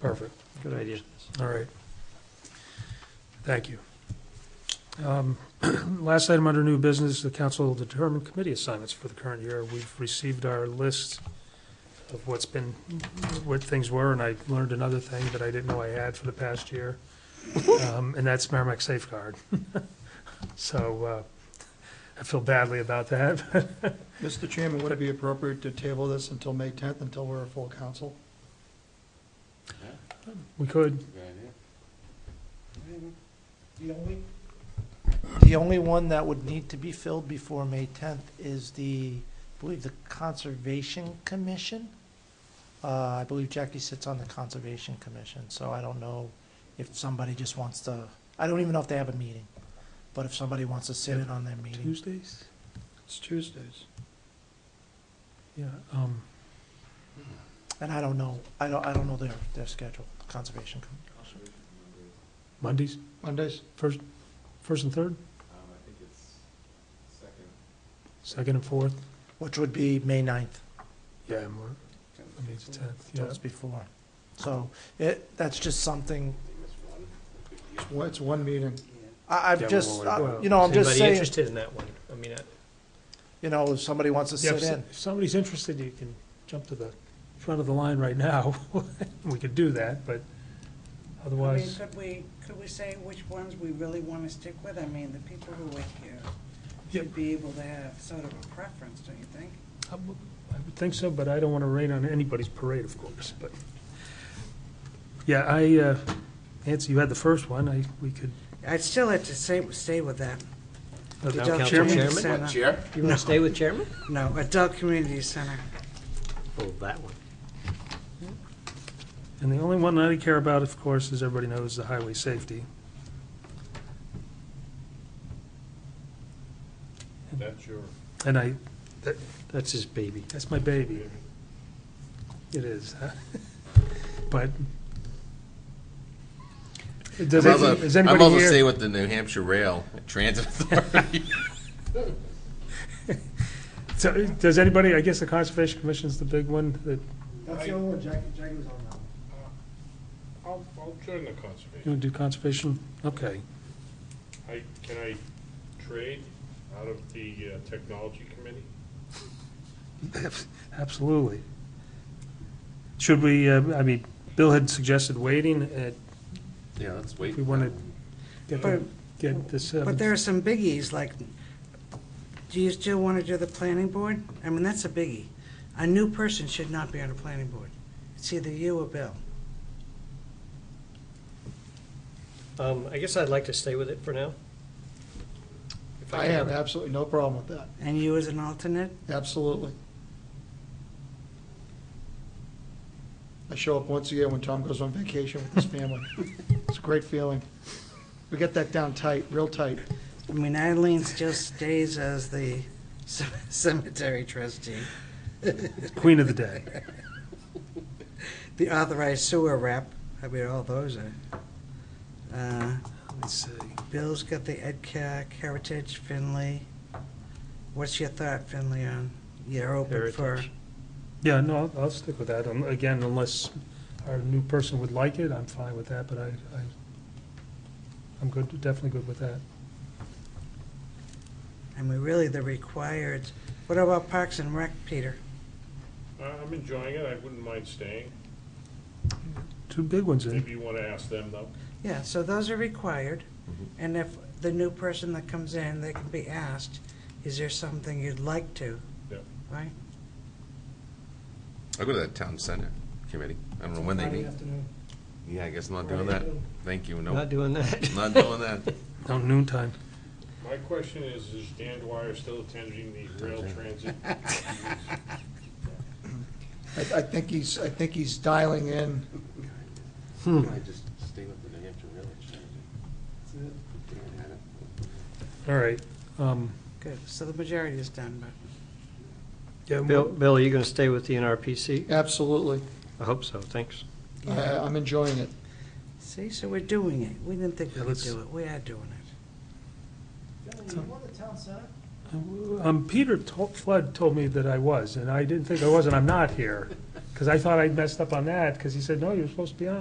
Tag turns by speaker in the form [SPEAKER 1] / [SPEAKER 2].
[SPEAKER 1] Perfect,
[SPEAKER 2] Good idea.
[SPEAKER 1] all right. Thank you. Um, Last item under new business, the council will determine committee assignments for the current year. We've received our list of what's been, what things were, and I learned another thing that I didn't know I had for the past year, Um, and that's Merrimack Safeguard. So uh, I feel badly about that,
[SPEAKER 3] Mr. Chairman, would it be appropriate to table this until May 10th, until we're a full council?
[SPEAKER 1] we could,
[SPEAKER 4] The only, the only one that would need to be filled before May tenth is the, I believe, the Conservation Commission. Uh, I believe Jackie sits on the Conservation Commission, so I don't know if somebody just wants to, I don't even know if they have a meeting. But if somebody wants to sit in on their meeting,
[SPEAKER 2] Tuesdays?
[SPEAKER 3] It's Tuesdays.
[SPEAKER 1] yeah. um,
[SPEAKER 4] and I don't know, I don't, I don't know their, their schedule, the Conservation Commission.
[SPEAKER 1] Mondays,
[SPEAKER 3] Mondays?
[SPEAKER 1] first, first and third, second and fourth?
[SPEAKER 4] Which would be May ninth.
[SPEAKER 1] Yeah, more, I mean, it's the tenth,
[SPEAKER 4] So
[SPEAKER 1] yeah.
[SPEAKER 4] it's before. So it, that's just something,
[SPEAKER 3] It's one- It's one meeting.
[SPEAKER 4] I,
[SPEAKER 2] Yeah,
[SPEAKER 4] I've just,
[SPEAKER 2] we'll-
[SPEAKER 4] I-
[SPEAKER 1] well,
[SPEAKER 4] you know, I'm just
[SPEAKER 2] Anybody
[SPEAKER 4] saying,
[SPEAKER 2] interested in that one? I mean, I-
[SPEAKER 4] you know, if somebody wants to
[SPEAKER 1] Yeah, if
[SPEAKER 4] sit
[SPEAKER 1] so-
[SPEAKER 4] in.
[SPEAKER 1] If somebody's interested, you can jump to the front of the line right now. We could do that, but
[SPEAKER 5] I mean,
[SPEAKER 1] otherwise,
[SPEAKER 5] could we, could we say which ones we really want to stick with? I mean, the people who are here should be able to have sort of a preference, don't you think?
[SPEAKER 1] I would I would think so, but I don't want to rain on anybody's parade, of course, but. Yeah, I, uh, Nancy, you had the first one, I, we could.
[SPEAKER 5] I'd still have to say, stay with that.
[SPEAKER 2] Town
[SPEAKER 5] Adult
[SPEAKER 2] Council
[SPEAKER 5] Community
[SPEAKER 2] Chairman?
[SPEAKER 5] Center.
[SPEAKER 6] Chair?
[SPEAKER 2] You want to stay with chairman?
[SPEAKER 5] No, Adult Community Center.
[SPEAKER 2] Oh, that one.
[SPEAKER 1] And the only one that I care about, of course, as everybody knows, the highway safety.
[SPEAKER 6] That's your.
[SPEAKER 1] And I,
[SPEAKER 2] That's his baby.
[SPEAKER 1] That's my baby. It is, huh? but. Does
[SPEAKER 7] I'm
[SPEAKER 1] any-
[SPEAKER 7] also,
[SPEAKER 1] is
[SPEAKER 7] I'm
[SPEAKER 1] anybody
[SPEAKER 7] also
[SPEAKER 1] here?
[SPEAKER 7] staying with the New Hampshire Rail Transit Authority.
[SPEAKER 1] so- Does anybody, I guess the Conservation Commission's the big one that,
[SPEAKER 4] That's the only one Jackie, Jackie was on that one.
[SPEAKER 6] I'll, I'll join the conservation.
[SPEAKER 1] you want to do conservation? Okay.
[SPEAKER 6] I, can I trade out of the uh, technology committee?
[SPEAKER 1] Absolutely. Should we, uh, I mean, Bill had suggested waiting, uh,
[SPEAKER 7] Yeah, let's wait.
[SPEAKER 1] if we want to get, the- get this, uh,
[SPEAKER 5] But there are some biggies, like, do you still want to do the planning board? I mean, that's a biggie. A new person should not be on a planning board. It's either you or Bill.
[SPEAKER 2] Um, I guess I'd like to stay with it for now. If
[SPEAKER 3] I
[SPEAKER 2] can
[SPEAKER 3] have absolutely no problem with that.
[SPEAKER 5] And you as an alternate?
[SPEAKER 3] Absolutely. I show up once a year when Tom goes on vacation with his family. It's a great feeling. We get that down tight, real tight.
[SPEAKER 5] I mean, Eileen still stays as the c- cemetery trustee,
[SPEAKER 1] Queen of the Day.
[SPEAKER 5] the authorized sewer rep. I mean, all those are. Uh,
[SPEAKER 1] Let's see.
[SPEAKER 5] Bill's got the EdCac, Heritage, Finley. What's your thought, Finley, on, you're open for?
[SPEAKER 2] Heritage.
[SPEAKER 1] Yeah, no, I'll- I'll stick with that. Um, Again, unless our new person would like it, I'm fine with that, but I, I, I'm good, definitely good with that.
[SPEAKER 5] I mean, really, the required, what about Parks and Rec, Peter?
[SPEAKER 6] I- I'm enjoying it, I wouldn't mind staying.
[SPEAKER 1] Two big ones eh? in.
[SPEAKER 6] Maybe you want to ask them, though.
[SPEAKER 5] Yeah, so those are required,
[SPEAKER 1] Mm-hmm.
[SPEAKER 5] and if the new person that comes in, they can be asked, is there something you'd like to?
[SPEAKER 6] Yep.
[SPEAKER 5] Right?
[SPEAKER 7] I'll go to that town center committee. I don't know when they meet. Yeah, I guess I'm not doing that. Thank you, no,
[SPEAKER 2] Not doing that.
[SPEAKER 7] not doing that.
[SPEAKER 1] No, noontime.
[SPEAKER 6] My question is, is Dan Dwyer still attending the rail transit?
[SPEAKER 3] I, I think he's, I think he's dialing in.
[SPEAKER 7] Can Hmm.
[SPEAKER 1] Hmm.
[SPEAKER 7] I just stay with the New Hampshire Rail Transit?
[SPEAKER 1] All right. um,
[SPEAKER 5] Good, so the majority is done, but
[SPEAKER 1] yeah,
[SPEAKER 2] Bill, Bill, are you going to stay with the NRPC?
[SPEAKER 3] Absolutely.
[SPEAKER 2] I hope so, thanks.
[SPEAKER 3] I, I- I'm enjoying it.
[SPEAKER 5] see, so we're doing it. We didn't think we
[SPEAKER 1] Yeah,
[SPEAKER 5] could
[SPEAKER 1] let's-
[SPEAKER 5] do it. We are doing it.
[SPEAKER 4] Gentlemen, you want the town center?
[SPEAKER 1] Um, Peter to- Flood told me that I was, and I didn't think I was, and I'm not here, because I thought I'd messed up on that, because he said, no, you're supposed to be on.